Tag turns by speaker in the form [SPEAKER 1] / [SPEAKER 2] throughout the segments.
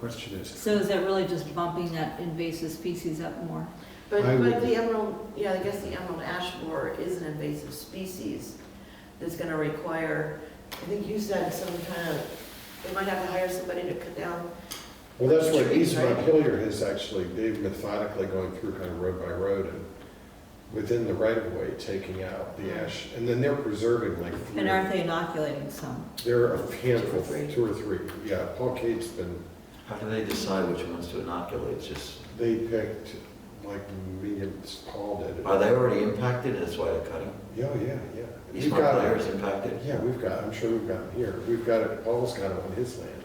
[SPEAKER 1] question is,
[SPEAKER 2] So is that really just bumping that invasive species up more?
[SPEAKER 3] But,
[SPEAKER 1] I
[SPEAKER 3] but
[SPEAKER 1] would-
[SPEAKER 3] the emerald, yeah, I guess the emerald ash borer is an invasive species that's gonna require, I think you said some kind of, they might have to hire somebody to cut down.
[SPEAKER 1] well, that's what
[SPEAKER 3] Trees,
[SPEAKER 1] Eastmont
[SPEAKER 3] right?
[SPEAKER 1] Hillier has actually, they've methodically going through kind of road by road and within the right of way, taking out the ash, and then they're preserving like
[SPEAKER 2] And aren't
[SPEAKER 1] three.
[SPEAKER 2] they inoculating some?
[SPEAKER 1] There are a handful,
[SPEAKER 3] three.
[SPEAKER 1] two or three, yeah, Paul Cate's been,
[SPEAKER 4] How do they decide which ones to inoculate? It's just,
[SPEAKER 1] they picked like medium, Paul did. it.
[SPEAKER 4] are they already impacted and that's why they're cutting?
[SPEAKER 1] Yeah, oh, yeah, yeah.
[SPEAKER 4] East
[SPEAKER 1] We've
[SPEAKER 4] Mount
[SPEAKER 1] got
[SPEAKER 4] Clair
[SPEAKER 1] it.
[SPEAKER 4] is impacted?
[SPEAKER 1] Yeah, we've got, I'm sure we've got it here. We've got it, Paul's got it on his land,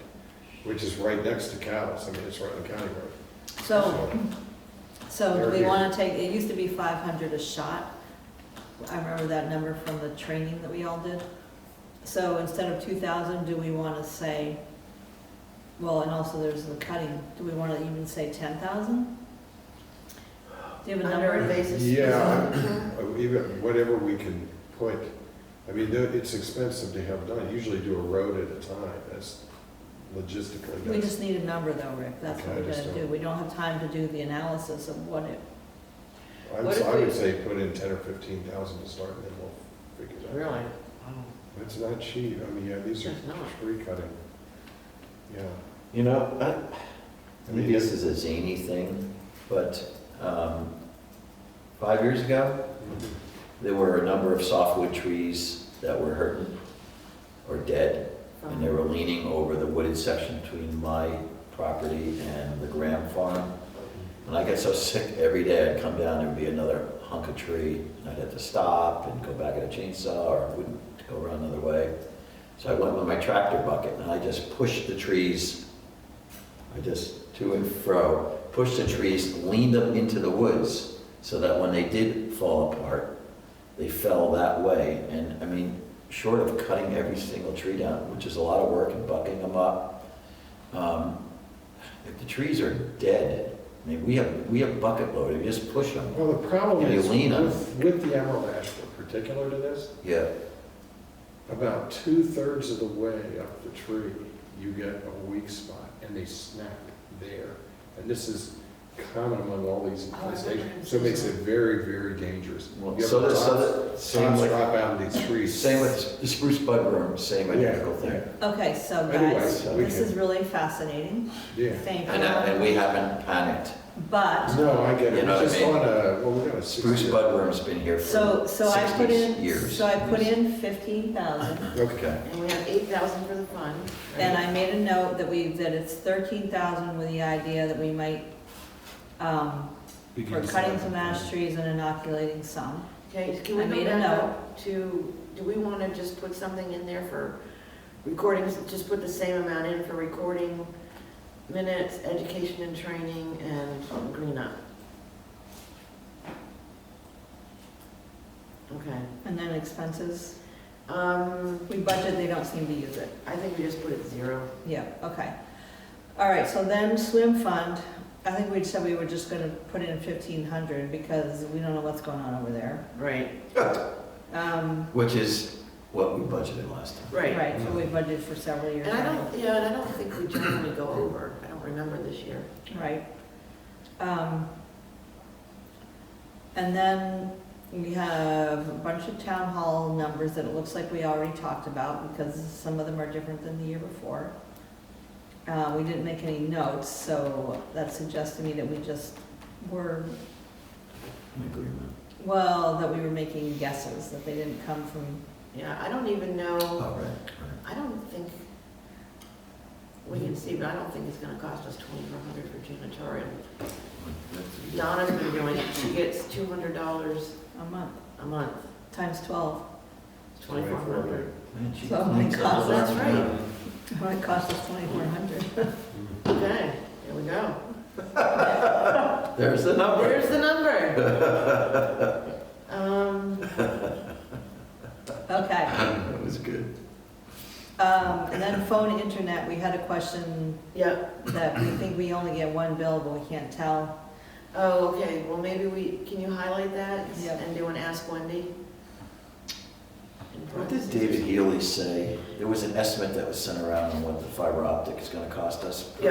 [SPEAKER 1] which is right next to Cal's. I mean, it's right on the county road.
[SPEAKER 2] So, so do we
[SPEAKER 1] They're
[SPEAKER 2] want to take, it used to be 500 a shot. I remember that number from the training that we all did. So instead of 2,000, do we want to say, well, and also there's the cutting, do we want to even say 10,000? Do you have a
[SPEAKER 3] Under
[SPEAKER 2] number?
[SPEAKER 3] invasive.
[SPEAKER 1] Yeah.
[SPEAKER 3] species.
[SPEAKER 1] Uh, Even, whatever we can put, I mean, though it's expensive to have done. Usually do a road at a time. That's logistically,
[SPEAKER 2] We
[SPEAKER 1] that's,
[SPEAKER 2] just need a number though, Rick, that's what
[SPEAKER 1] Okay, I
[SPEAKER 2] we're
[SPEAKER 1] just
[SPEAKER 2] gonna do.
[SPEAKER 1] don't-
[SPEAKER 2] We don't have time to do the analysis of what it,
[SPEAKER 1] I
[SPEAKER 3] What
[SPEAKER 1] would-
[SPEAKER 3] if
[SPEAKER 1] I would
[SPEAKER 3] we-
[SPEAKER 1] say put in ten or fifteen thousand to start and then we'll figure it out.
[SPEAKER 3] Really?
[SPEAKER 1] It's not cheap. I mean, yeah, these are
[SPEAKER 3] It's not.
[SPEAKER 1] tree cutting. Yeah.
[SPEAKER 4] You know, I-
[SPEAKER 1] I mean,
[SPEAKER 4] maybe this is a zany thing, but um, five years ago, there were a number of softwood trees that were hurting or dead, and they were leaning over the wooded section between my property and the Graham farm. And I get so sick every day, I'd come down, there'd be another hunk of tree, and I'd have to stop and go back at a chainsaw, or I wouldn't go around another way. So I went with my tractor bucket, and I just pushed the trees, I just to and fro, pushed the trees, leaned them into the woods, so that when they did fall apart, they fell that way, and, I mean, short of cutting every single tree down, which is a lot of work, and bucking them up, um, if the trees are dead, I mean, we have, we have bucket loaded, you just push them.
[SPEAKER 1] Well, the problem
[SPEAKER 4] If you
[SPEAKER 1] is
[SPEAKER 4] lean on it.
[SPEAKER 1] with, with the emerald ash, in particular to this,
[SPEAKER 4] Yeah,
[SPEAKER 1] about two-thirds of the way up the tree, you get a weak spot, and they snap there. And this is common among all these
[SPEAKER 2] Oh,
[SPEAKER 3] I remember him
[SPEAKER 1] infestations, so it makes it
[SPEAKER 3] saying
[SPEAKER 1] very, very dangerous.
[SPEAKER 4] Well,
[SPEAKER 1] You have
[SPEAKER 4] so
[SPEAKER 1] the
[SPEAKER 4] does- so
[SPEAKER 1] tops-
[SPEAKER 4] that- same
[SPEAKER 1] tops
[SPEAKER 4] with-
[SPEAKER 1] drop out of these trees.
[SPEAKER 4] Same with the spruce budworm, same identical
[SPEAKER 1] Yeah,
[SPEAKER 4] thing.
[SPEAKER 2] okay, so
[SPEAKER 1] Anyway,
[SPEAKER 2] guys,
[SPEAKER 4] so
[SPEAKER 1] we
[SPEAKER 2] this
[SPEAKER 1] can-
[SPEAKER 2] is really fascinating.
[SPEAKER 1] Yeah.
[SPEAKER 2] Thank
[SPEAKER 4] And, uh, and
[SPEAKER 2] you.
[SPEAKER 4] we haven't panicked.
[SPEAKER 2] But,
[SPEAKER 1] No, I get
[SPEAKER 4] You
[SPEAKER 1] it.
[SPEAKER 4] know what I
[SPEAKER 1] Just
[SPEAKER 4] mean?
[SPEAKER 1] on a, well, we got a
[SPEAKER 4] Spruce
[SPEAKER 1] sixty.
[SPEAKER 4] budworm's been here
[SPEAKER 2] so,
[SPEAKER 4] for
[SPEAKER 2] so I put
[SPEAKER 4] 60
[SPEAKER 2] in,
[SPEAKER 4] years.
[SPEAKER 2] so I put in 15,000.
[SPEAKER 1] Okay.
[SPEAKER 3] And we have eight thousand for the fund.
[SPEAKER 2] And I made a note that we, that it's 13,000 with the idea that we might, um, we're cutting some ash trees and inoculating some.
[SPEAKER 3] Okay, can we
[SPEAKER 2] I
[SPEAKER 3] go
[SPEAKER 2] made a
[SPEAKER 3] back
[SPEAKER 2] note.
[SPEAKER 3] up to, do we want to just put something in there for recordings, just put the same amount in for recording minutes, education and training, and um, cleanup? Okay,
[SPEAKER 2] And then expenses,
[SPEAKER 3] um,
[SPEAKER 2] we budget, they don't seem to use it.
[SPEAKER 3] I think we just put it zero.
[SPEAKER 2] Yeah, okay. All right, so then swim fund, I think we said we were just gonna put in fifteen hundred because we don't know what's going on over there.
[SPEAKER 3] Right.
[SPEAKER 2] Um,
[SPEAKER 4] Which is what we budgeted last time.
[SPEAKER 3] Right.
[SPEAKER 2] right, so we budgeted for several years.
[SPEAKER 3] And I don't, yeah, and I don't think we generally go over, I don't remember this year.
[SPEAKER 2] Right. Um, and then we have a bunch of town hall numbers that it looks like we already talked about because some of them are different than the year before. Uh, we didn't make any notes, so that suggests to me that we just were
[SPEAKER 4] In agreement.
[SPEAKER 2] Well, that we were making guesses, that they didn't come from,
[SPEAKER 3] Yeah, I don't even know.
[SPEAKER 4] Oh, right,
[SPEAKER 3] I don't think, we can see, but I don't think it's gonna cost us twenty-four hundred for janitorial.
[SPEAKER 4] right.
[SPEAKER 3] Donna's been doing it, she gets two hundred dollars
[SPEAKER 2] a month,
[SPEAKER 3] a month,
[SPEAKER 2] times 12.
[SPEAKER 3] twenty-four hundred.
[SPEAKER 4] Man, she
[SPEAKER 2] Oh my
[SPEAKER 4] thinks a
[SPEAKER 2] God,
[SPEAKER 4] lot
[SPEAKER 3] that's
[SPEAKER 4] about
[SPEAKER 3] right.
[SPEAKER 4] that.
[SPEAKER 1] Mm-hmm.
[SPEAKER 2] Well, it cost us 2,400.
[SPEAKER 3] Okay, there we go.
[SPEAKER 4] There's the number.
[SPEAKER 3] There's the number. Um,
[SPEAKER 2] Okay.
[SPEAKER 4] That was good.
[SPEAKER 2] Um, And then phone internet, we had a question
[SPEAKER 3] yeah,
[SPEAKER 2] that we think we only get one bill, but we can't tell.
[SPEAKER 3] oh, okay, well, maybe we, can you highlight that?
[SPEAKER 2] Yeah.
[SPEAKER 3] And do an Ask Wendy? In
[SPEAKER 4] What did
[SPEAKER 3] parentheses.
[SPEAKER 4] David Healy say? There was an estimate that was sent around on what the fiber optic is gonna cost us.